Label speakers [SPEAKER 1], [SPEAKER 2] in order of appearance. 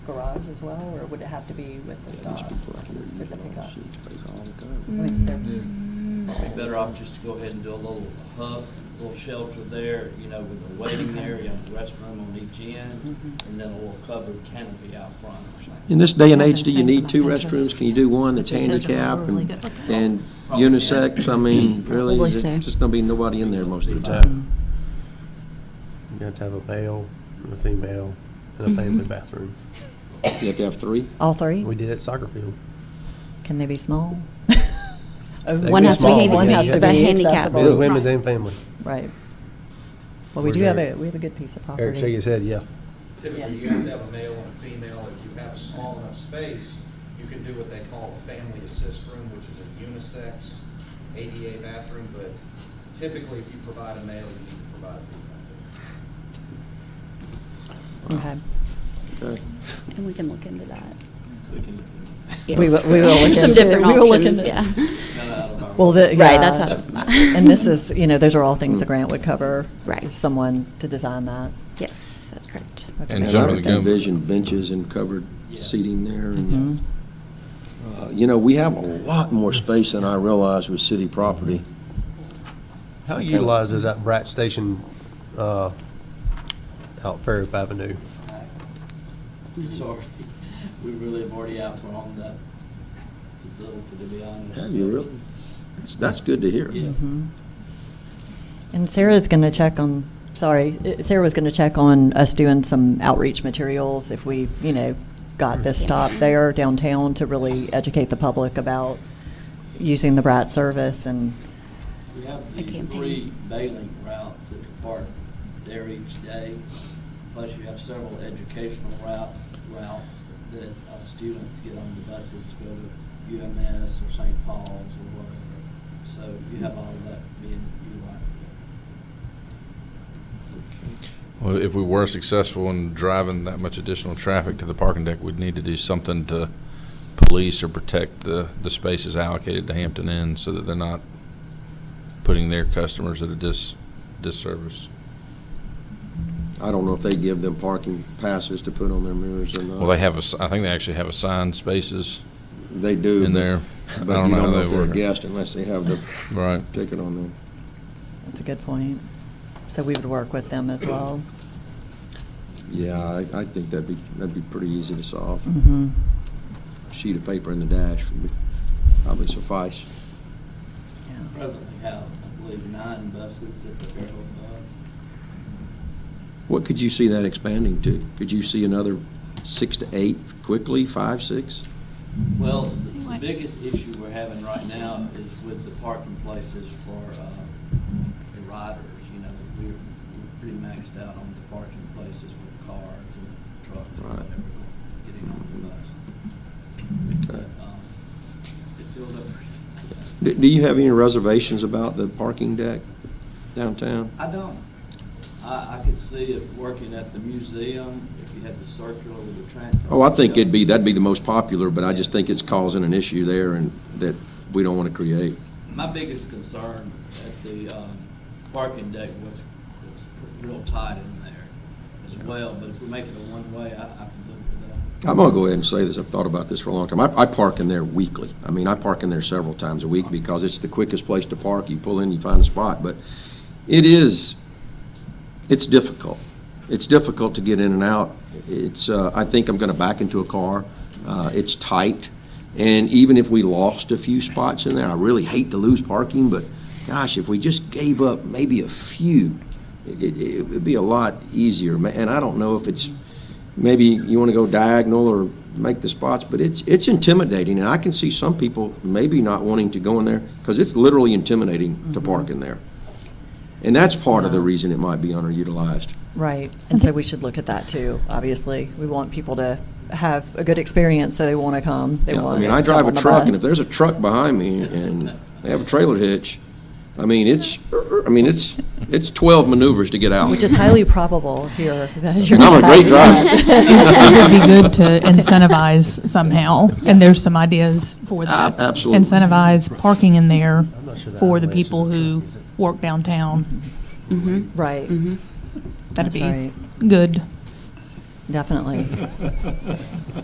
[SPEAKER 1] garage as well, or would it have to be with the stop? With the pickup? I
[SPEAKER 2] Well,
[SPEAKER 1] mean, they're-
[SPEAKER 3] Mm-hmm.
[SPEAKER 4] Yeah. Be better off just to go ahead and do a little hub, little shelter there, you know, with a waiting area, and a restroom on each
[SPEAKER 3] Mm-hmm.
[SPEAKER 4] end,
[SPEAKER 1] Mm-hmm.
[SPEAKER 4] and then a little covered canopy out front or something.
[SPEAKER 2] In this day and
[SPEAKER 3] Yeah,
[SPEAKER 2] age,
[SPEAKER 3] those
[SPEAKER 2] do you
[SPEAKER 3] things
[SPEAKER 2] need
[SPEAKER 3] about
[SPEAKER 2] two
[SPEAKER 3] Pinterest.
[SPEAKER 2] restrooms? Can you do one that's
[SPEAKER 3] Those are
[SPEAKER 2] handicapped
[SPEAKER 3] really
[SPEAKER 2] and,
[SPEAKER 3] good.
[SPEAKER 2] and unisex? I mean, really,
[SPEAKER 3] Probably
[SPEAKER 2] there's
[SPEAKER 3] so.
[SPEAKER 2] just gonna be nobody in there most of the time.
[SPEAKER 5] You have to have a male, and a female, and a family bathroom.
[SPEAKER 2] You have to have three?
[SPEAKER 3] All three?
[SPEAKER 5] We did it at soccer field.
[SPEAKER 3] Can they be small?
[SPEAKER 5] They
[SPEAKER 3] One
[SPEAKER 5] be
[SPEAKER 3] has to
[SPEAKER 5] small,
[SPEAKER 3] be,
[SPEAKER 5] but
[SPEAKER 3] one
[SPEAKER 5] yeah,
[SPEAKER 3] has
[SPEAKER 5] you
[SPEAKER 3] to
[SPEAKER 5] have to
[SPEAKER 3] be
[SPEAKER 5] be
[SPEAKER 3] handicapped.
[SPEAKER 5] Men,
[SPEAKER 3] Right.
[SPEAKER 5] women's and family.
[SPEAKER 3] Well, we
[SPEAKER 5] Where's
[SPEAKER 3] do have a,
[SPEAKER 5] Eric?
[SPEAKER 3] we have a good piece of property.
[SPEAKER 5] Eric shake his head, yeah.
[SPEAKER 6] Typically, you have to have a male and a female. If you have a small enough space, you can do what they call a family assist room, which is a unisex ADA bathroom, but typically, if you provide a male, you need to provide a female too.
[SPEAKER 3] Okay.
[SPEAKER 2] Okay.
[SPEAKER 7] And we can look into that.
[SPEAKER 4] We can-
[SPEAKER 7] Yeah.
[SPEAKER 3] We will- we will look into
[SPEAKER 7] Some
[SPEAKER 3] it.
[SPEAKER 7] different
[SPEAKER 3] We will look
[SPEAKER 7] options,
[SPEAKER 3] into it.
[SPEAKER 7] yeah.
[SPEAKER 4] Not out of our-
[SPEAKER 3] Well, the,
[SPEAKER 7] Right,
[SPEAKER 3] yeah.
[SPEAKER 7] that's out of my-
[SPEAKER 3] And this is, you know, those are all
[SPEAKER 1] Mm.
[SPEAKER 3] things the grant would cover.
[SPEAKER 7] Right.
[SPEAKER 3] Someone to design that.
[SPEAKER 7] Yes, that's correct.
[SPEAKER 3] Okay.
[SPEAKER 8] And
[SPEAKER 2] And I
[SPEAKER 8] generally
[SPEAKER 2] would
[SPEAKER 8] go-
[SPEAKER 2] envision benches and covered
[SPEAKER 4] Yeah.
[SPEAKER 2] seating there.
[SPEAKER 3] Mhm.
[SPEAKER 2] and
[SPEAKER 3] Mm-hmm.
[SPEAKER 2] uh, You know, we have a lot more space than I realize with city property.
[SPEAKER 5] How utilized is that Brat Station, uh, out Fairhope Avenue?
[SPEAKER 4] It's already, we really have already outgrown that facility, to be honest.
[SPEAKER 2] Have you really? That's- That's good to hear.
[SPEAKER 4] Yeah.
[SPEAKER 3] Mhm. Mm-hmm. And Sarah's going to check on, sorry, uh, Sarah was going to check on us doing some outreach materials if we, you know, got this stop there downtown to really educate the public about using the Brat service and,
[SPEAKER 4] We have
[SPEAKER 7] A
[SPEAKER 4] the
[SPEAKER 7] campaign.
[SPEAKER 4] three bailing routes that depart there each day, plus you have several educational route, routes that uh, students get on the buses to go to UMS or St. Paul's or whatever. So you have all of that being utilized there.
[SPEAKER 8] Well, if we were successful in driving that much additional traffic to the parking deck, we'd need to do something to police or protect the, the spaces allocated to Hampton Inn so that they're not putting their customers at a dis, disservice.
[SPEAKER 2] I don't know if they give them parking passes to put on their mirrors or not.
[SPEAKER 8] Well, they have a, s- I think they actually have assigned spaces
[SPEAKER 2] They do.
[SPEAKER 8] in
[SPEAKER 2] but-
[SPEAKER 8] there. I
[SPEAKER 2] But you
[SPEAKER 8] how
[SPEAKER 2] don't know
[SPEAKER 8] they
[SPEAKER 2] if they're a
[SPEAKER 8] work.
[SPEAKER 2] guest unless they have the
[SPEAKER 8] Right.
[SPEAKER 2] ticket on them.
[SPEAKER 3] that's a good point. So we would work with them as well.
[SPEAKER 2] Yeah, I, I think that'd be, that'd be pretty easy to solve.
[SPEAKER 3] Mm-hmm.
[SPEAKER 2] A sheet of paper in the dash would be- probably suffice.
[SPEAKER 4] Presently have, I believe, nine buses at the Fairhope Hub.
[SPEAKER 2] What could you see that expanding to? Could you see another six to eight quickly, five, six?
[SPEAKER 4] Well, the- the biggest issue we're having right now is with the parking places for uh, the riders, you know, we're we're pretty maxed out on the parking places for cars and trucks and
[SPEAKER 2] Right.
[SPEAKER 4] whatever go- getting on the bus.
[SPEAKER 2] Okay.
[SPEAKER 4] But, um, It filled up. pretty fast.
[SPEAKER 2] Do, do you have any reservations about the parking deck downtown?
[SPEAKER 4] I don't, I, I could see it working at the museum, if you had the circular with the transfer.
[SPEAKER 2] Oh, I think it'd be, that'd be the most popular, but I just think it's causing an issue there and that we don't want to create.
[SPEAKER 4] My biggest concern at the um, parking deck was, was real tight in there as well, but if we make it a one-way, I, I can live with that.
[SPEAKER 2] I'm gonna go ahead and say this, I've thought about this for a long time. I, I park in there weekly. I mean, I park in there several times a week because it's the quickest place to park. You pull in, you find a spot, but it is, it's difficult. It's difficult to get in and out. It's, uh, I think I'm gonna back into a car. Uh, it's tight. And even if we lost a few spots in there, I really hate to lose parking, but gosh, if we just gave up maybe a few, it, it, it would be a lot easier. Ma- And I don't know if it's, maybe you want to go diagonal or make the spots, but it's, it's intimidating, and I can see some people maybe not wanting to go in there, because it's literally intimidating to park in there. And that's part of the reason it might be underutilized.
[SPEAKER 3] Right, and so we should look at that too, obviously. We want people to have a good experience, so they want to come, they
[SPEAKER 2] Yeah,
[SPEAKER 3] want
[SPEAKER 2] I
[SPEAKER 3] to
[SPEAKER 2] mean, I drive
[SPEAKER 3] jump
[SPEAKER 2] a
[SPEAKER 3] on the
[SPEAKER 2] truck,
[SPEAKER 3] bus.
[SPEAKER 2] and if there's a truck behind me and they have a trailer hitch, I mean, it's, I mean, it's, it's twelve maneuvers to get out.
[SPEAKER 3] Which is highly probable here that you're.
[SPEAKER 2] And I'm a
[SPEAKER 3] gonna
[SPEAKER 2] great
[SPEAKER 3] have-
[SPEAKER 2] driver.
[SPEAKER 9] It would be good to incentivize somehow, and there's some ideas for
[SPEAKER 2] Ab-
[SPEAKER 9] that.
[SPEAKER 2] Uh, absolutely.
[SPEAKER 9] Incentivize parking in there
[SPEAKER 5] I'm not sure that
[SPEAKER 9] for the
[SPEAKER 5] avalanche is a
[SPEAKER 9] people who
[SPEAKER 5] trick, is it?
[SPEAKER 9] work downtown.
[SPEAKER 7] Mm-hmm.
[SPEAKER 3] Right.
[SPEAKER 9] That'd
[SPEAKER 3] That's
[SPEAKER 9] be
[SPEAKER 3] right.
[SPEAKER 9] good.
[SPEAKER 6] definitely.